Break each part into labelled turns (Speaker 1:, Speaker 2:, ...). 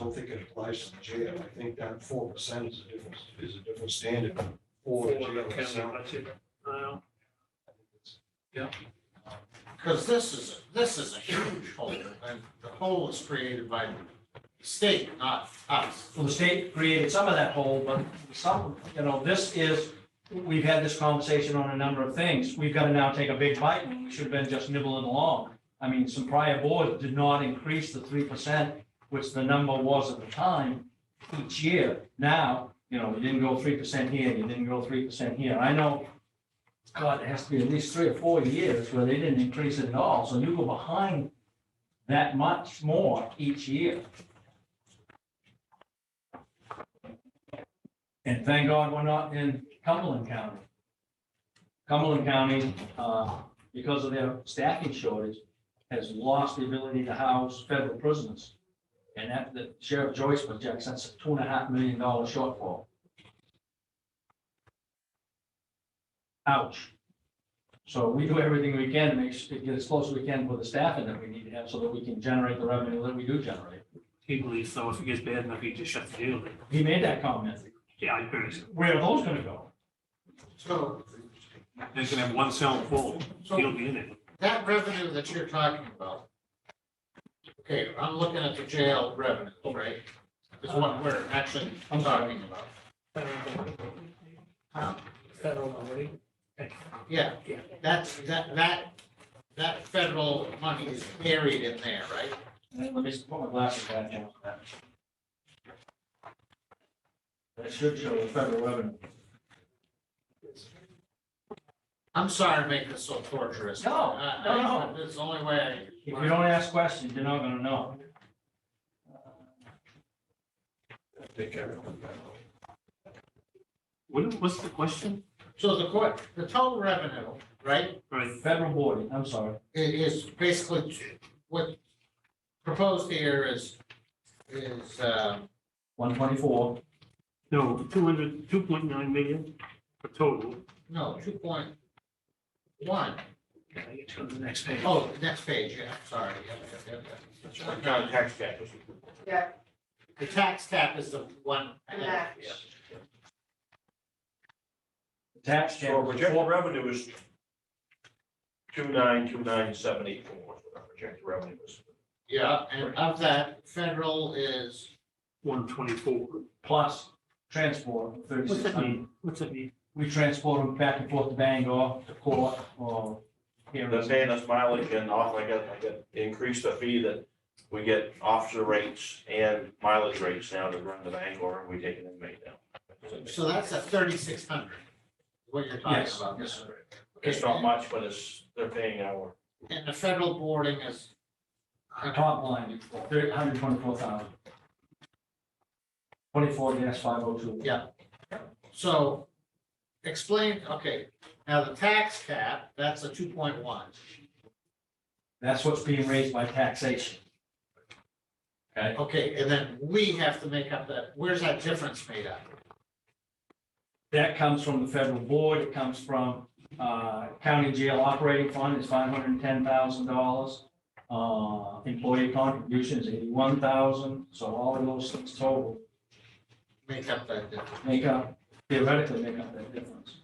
Speaker 1: don't think it applies to the jail. I think that four percent is a different, is a different standard for the jail itself. I think it's-
Speaker 2: Yeah.
Speaker 3: Because this is, this is a huge hole, and the hole was created by the state, not us.
Speaker 4: Well, the state created some of that hole, but some, you know, this is, we've had this conversation on a number of things. We've got to now take a big bite when we should have been just nibbling along. I mean, some prior boards did not increase the three percent, which the number was at the time, each year. Now, you know, you didn't go three percent here, you didn't go three percent here. I know, God, it has to be at least three or four years where they didn't increase it at all. So you go behind that much more each year. And thank God we're not in Cumberland County. Cumberland County, uh, because of their staffing shortage, has lost the ability to house federal prisoners. And that, that Sheriff Joyce projects, that's a two and a half million dollar shortfall. Ouch. So we do everything we can to make, s- to get as close as we can with the staffing that we need to have so that we can generate the revenue that we do generate.
Speaker 2: He believes though, if it gets bad enough, he just shut the deal. down.
Speaker 4: He made that comment.
Speaker 2: Yeah, I agree.
Speaker 4: Where are those gonna go?
Speaker 3: So
Speaker 2: They're gonna have one cell full. He'll
Speaker 3: So
Speaker 2: be in it.
Speaker 3: that revenue that you're talking about, okay, I'm looking at the jail revenue, right? Is what we're actually
Speaker 4: I'm sorry.
Speaker 3: talking about.
Speaker 5: Federal money.
Speaker 3: Yeah, that's, that, that, that federal money is buried in there, right?
Speaker 4: Let me just put my glasses back on. That should show the federal revenue.
Speaker 3: I'm sorry to make this so torturous.
Speaker 4: No,
Speaker 3: I-
Speaker 4: no,
Speaker 3: I-
Speaker 4: no.
Speaker 3: It's the only way. I-
Speaker 4: If you don't ask questions, you're not gonna know.
Speaker 1: I think everyone got it.
Speaker 2: What, what's the question?
Speaker 3: So the court, the total revenue, right,
Speaker 2: Right,
Speaker 4: Federal board, I'm sorry.
Speaker 3: i- is basically t- what proposed here is, is, uh,
Speaker 4: One twenty-four,
Speaker 2: no, two hundred, two point nine million for total.
Speaker 3: no, two point one.
Speaker 2: Yeah, I get to the next page.
Speaker 3: Oh, next page, yeah, sorry. yeah, yeah, yeah, yeah.
Speaker 5: tax cap.
Speaker 6: Yeah,
Speaker 3: The tax cap is the one.
Speaker 6: and that,
Speaker 4: tax
Speaker 5: So our
Speaker 4: cap,
Speaker 5: projected revenue is two nine, two nine, seven eight four, our projected revenue is.
Speaker 3: Yeah, and of that, federal is,
Speaker 2: One twenty-four.
Speaker 4: plus transport,
Speaker 2: What's
Speaker 4: thirty-six
Speaker 2: that
Speaker 4: hundred.
Speaker 2: mean? What's that mean?
Speaker 4: We transport them back and forth to Bangor, to court, or here.
Speaker 5: They're paying us mileage and off, I got, I got increased the fee that we get officer rates and mileage rates now to run the Bangor, and we take an inmate now.
Speaker 3: so that's a thirty-six hundred, what you're talking
Speaker 4: Yes,
Speaker 3: about.
Speaker 4: yes,
Speaker 5: It's not much, but it's, they're paying our,
Speaker 3: And the federal boarding is.
Speaker 4: Top line, three hundred twenty-four thousand. Twenty-four dash five oh two.
Speaker 3: So explain, okay, now the tax cap, that's a two point one.
Speaker 4: That's what's being raised by taxation.
Speaker 3: Okay, and then we have to make up that, where's that difference made up?
Speaker 4: That comes from the federal board, it comes from uh, county jail operating fund is five hundred and ten thousand dollars. Uh, Employee contributions eighty-one thousand, so all of those things total
Speaker 3: Make up that difference.
Speaker 4: make up, theoretically make up that difference.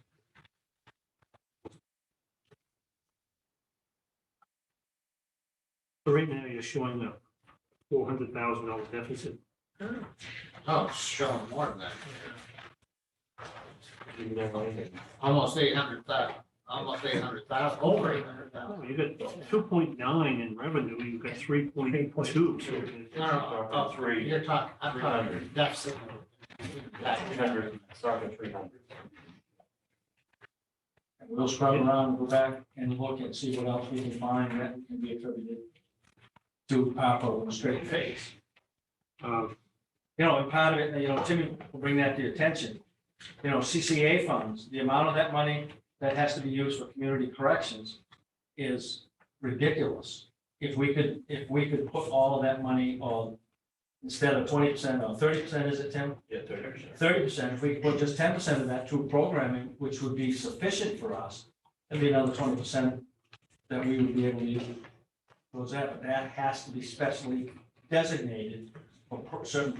Speaker 2: So Right now, you're showing a four hundred thousand dollar deficit.
Speaker 3: Oh, showing more than that,
Speaker 5: even their money.
Speaker 3: almost eight hundred thousand, almost eight hundred thousand, over eight hundred thousand.
Speaker 2: Oh, you got two point nine in revenue, you've got three point two.
Speaker 3: No, no, no, oh,
Speaker 5: uh, Three.
Speaker 3: you're talking, I'm talking
Speaker 5: 300.
Speaker 3: deficit.
Speaker 5: Three hundred, starting three hundred.
Speaker 4: And We'll scrub around, go back and look and see what else we can find that can be attributed to Papa with a straight face.
Speaker 2: Uh,
Speaker 4: You know, and part of it, you know, Timmy will bring that to your attention. You know, CCA funds, the amount of that money that has to be used for community corrections is ridiculous. If we could, if we could put all of that money on, instead of twenty percent or thirty percent, is it Tim?
Speaker 5: Yeah, thirty percent.
Speaker 4: Thirty percent, if we could put just ten percent of that to programming, which would be sufficient for us, that'd be another twenty percent that we would be able to use. towards that, but that has to be specially designated for per- certain